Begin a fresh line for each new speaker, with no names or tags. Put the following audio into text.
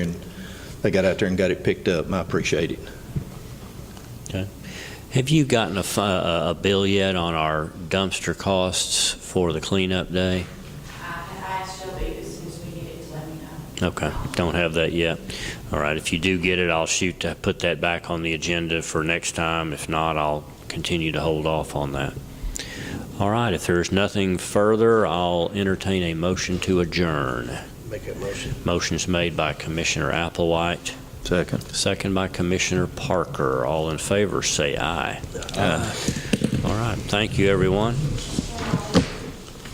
and they got out there and got it picked up, and I appreciate it.
Have you gotten a, fi- a a bill yet on our dumpster costs for the cleanup day?
Uh, I I asked Shelby as soon as we get it to let me know.
Okay, don't have that yet. All right, if you do get it, I'll shoot to put that back on the agenda for next time. If not, I'll continue to hold off on that. All right, if there's nothing further, I'll entertain a motion to adjourn.
Make that motion.
Motion's made by Commissioner Applewhite,
Second.
second by Commissioner Parker. All in favor, say aye. All right, thank you, everyone.